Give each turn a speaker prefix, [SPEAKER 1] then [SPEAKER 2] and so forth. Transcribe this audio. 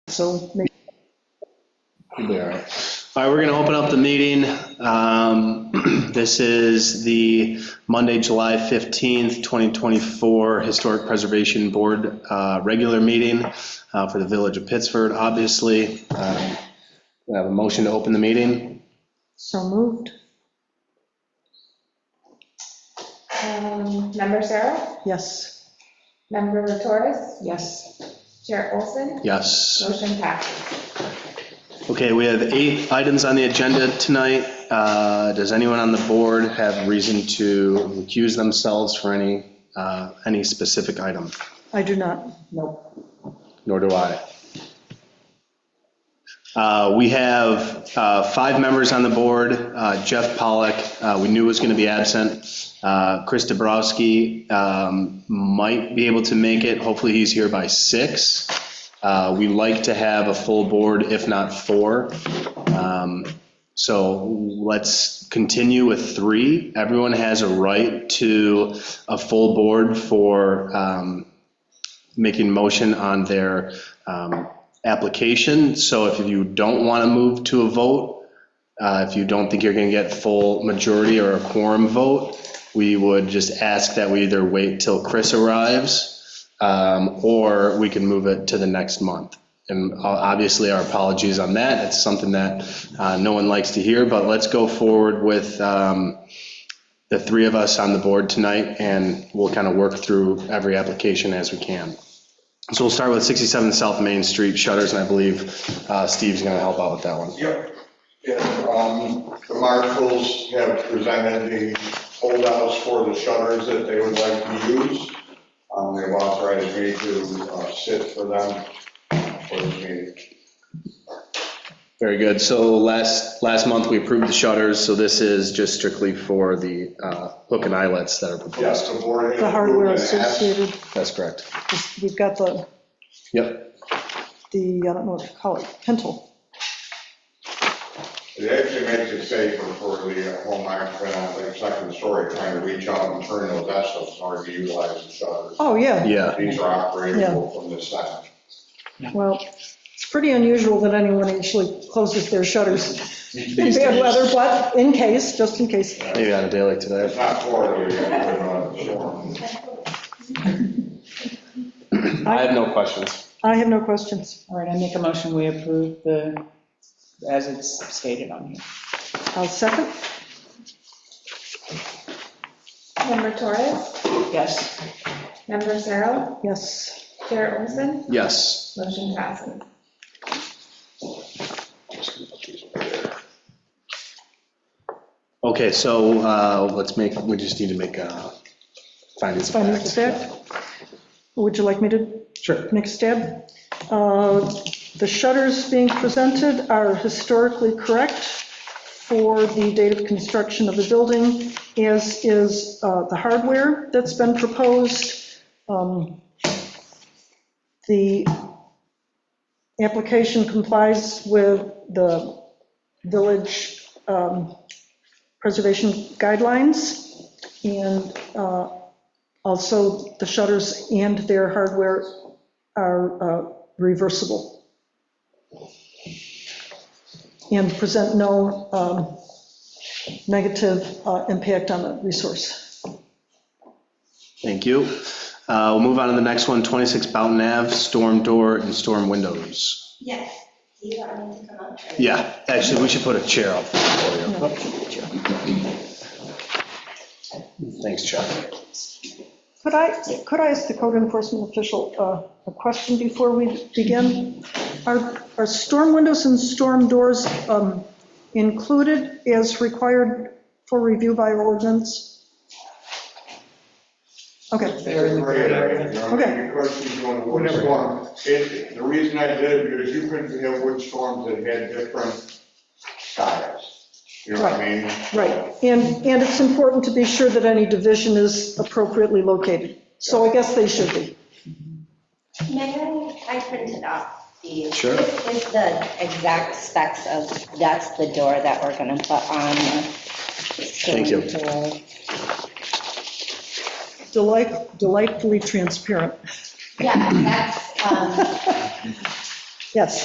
[SPEAKER 1] so
[SPEAKER 2] We'll be all right. All right, we're going to open up the meeting. Um, This is the Monday, July 15th, 2024 Historic Preservation Board uh, regular meeting uh, for the Village of Pittsford, obviously. Um, We have a motion to open the meeting.
[SPEAKER 1] so moved.
[SPEAKER 3] Um, Member Sarah,
[SPEAKER 1] Yes,
[SPEAKER 3] Member Torres,
[SPEAKER 1] yes.
[SPEAKER 3] Chair Olson,
[SPEAKER 2] Yes.
[SPEAKER 3] motion passes.
[SPEAKER 2] Okay, we have eight items on the agenda tonight. Uh, Does anyone on the board have reason to recuse themselves for any, uh, any specific item?
[SPEAKER 1] I do not, no.
[SPEAKER 2] Nor do I. Uh, We have uh, five members on the board. Uh, Jeff Pollack, uh, we knew was going to be absent. Uh, Chris Dabrowski um, might be able to make it. Hopefully, he's here by six. Uh, We like to have a full board, if not four. Um, so let's continue with three. Everyone has a right to a full board for um, making motion on their um, application. So if you don't want to move to a vote, uh, if you don't think you're going to get full majority or a quorum vote, we would just ask that we either wait till Chris arrives, um, or we can move it to the next month. And uh, obviously, our apologies on that. It's something that uh, no one likes to hear, but let's go forward with um, the three of us on the board tonight, and we'll kind of work through every application as we can. So we'll start with 67 South Main Street shutters, and I believe uh, Steve's going to help out with that one.
[SPEAKER 4] Yep. Yeah, um, the marshals have presented the holdouts for the shutters that they would like to use. Um, they've authorized me to uh, sit for them for the meeting.
[SPEAKER 2] Very good. So last, last month, we approved the shutters, so this is just strictly for the uh, hook and eyelets that are proposed.
[SPEAKER 4] Yes, the board.
[SPEAKER 1] The hardware
[SPEAKER 4] has approved and
[SPEAKER 1] associated,
[SPEAKER 2] That's correct.
[SPEAKER 1] we've got the,
[SPEAKER 2] Yep.
[SPEAKER 1] the, I don't know what to call it, pentel.
[SPEAKER 4] asked- It actually makes it safer for the uh, home occupant on the second story trying to reach out and turn those vessels in order to utilize the shutters.
[SPEAKER 1] Oh, yeah,
[SPEAKER 2] Yeah,
[SPEAKER 4] These are operable from this side.
[SPEAKER 1] well, it's pretty unusual that anyone actually closes their shutters in bad weather, but in case, just in case.
[SPEAKER 2] maybe on a day like
[SPEAKER 4] It's
[SPEAKER 2] today.
[SPEAKER 4] not Florida, you gotta put it on the uh, storm.
[SPEAKER 2] I have no questions.
[SPEAKER 1] I have no questions.
[SPEAKER 5] All right, I make a motion, we approve the, as it's stated on here.
[SPEAKER 1] I'll second,
[SPEAKER 3] Member Torres,
[SPEAKER 5] Yes,
[SPEAKER 3] Member Sarah,
[SPEAKER 1] yes.
[SPEAKER 3] Chair Olson,
[SPEAKER 2] Yes.
[SPEAKER 3] motion passes.
[SPEAKER 2] Okay, so uh, let's make, we just need to make uh, findings of
[SPEAKER 1] Findings of
[SPEAKER 2] facts.
[SPEAKER 1] fact. Would you like me to
[SPEAKER 2] Sure.
[SPEAKER 1] Next stab. Uh, The shutters being presented are historically correct for the date of construction of the building, as is uh, the hardware that's been proposed. Um, The application complies with the village um, preservation guidelines, and uh, also the shutters and their hardware are uh, reversible. And present no um, negative uh, impact on the resource.
[SPEAKER 2] Thank you. Uh, We'll move on to the next one, 26 Bounton Ave, storm door and storm windows.
[SPEAKER 6] Yes, do you want me to come up?
[SPEAKER 2] Yeah, actually, we should put a chair up there for you. Thanks, Chuck.
[SPEAKER 1] Could I, could I ask the code enforcement official uh, a question before we begin? Are, are storm windows and storm doors um, included as required for review by ordinance? Okay.
[SPEAKER 5] They're in the
[SPEAKER 4] Great, I
[SPEAKER 5] grid.
[SPEAKER 4] mean, you know, Of course, you doing wood storm. It, the reason I did it, because you couldn't have wood storms that had different styles. You know what I mean?
[SPEAKER 1] Right, and, and it's important to be sure that any division is appropriately located. So I guess they should be.
[SPEAKER 6] Mayor, I printed out the.
[SPEAKER 2] Sure.
[SPEAKER 6] This is the exact specs of, that's the door that we're gonna put on. Thank
[SPEAKER 2] you.
[SPEAKER 1] Delight, delightfully transparent.
[SPEAKER 6] Yeah, that's, um,
[SPEAKER 1] Yes.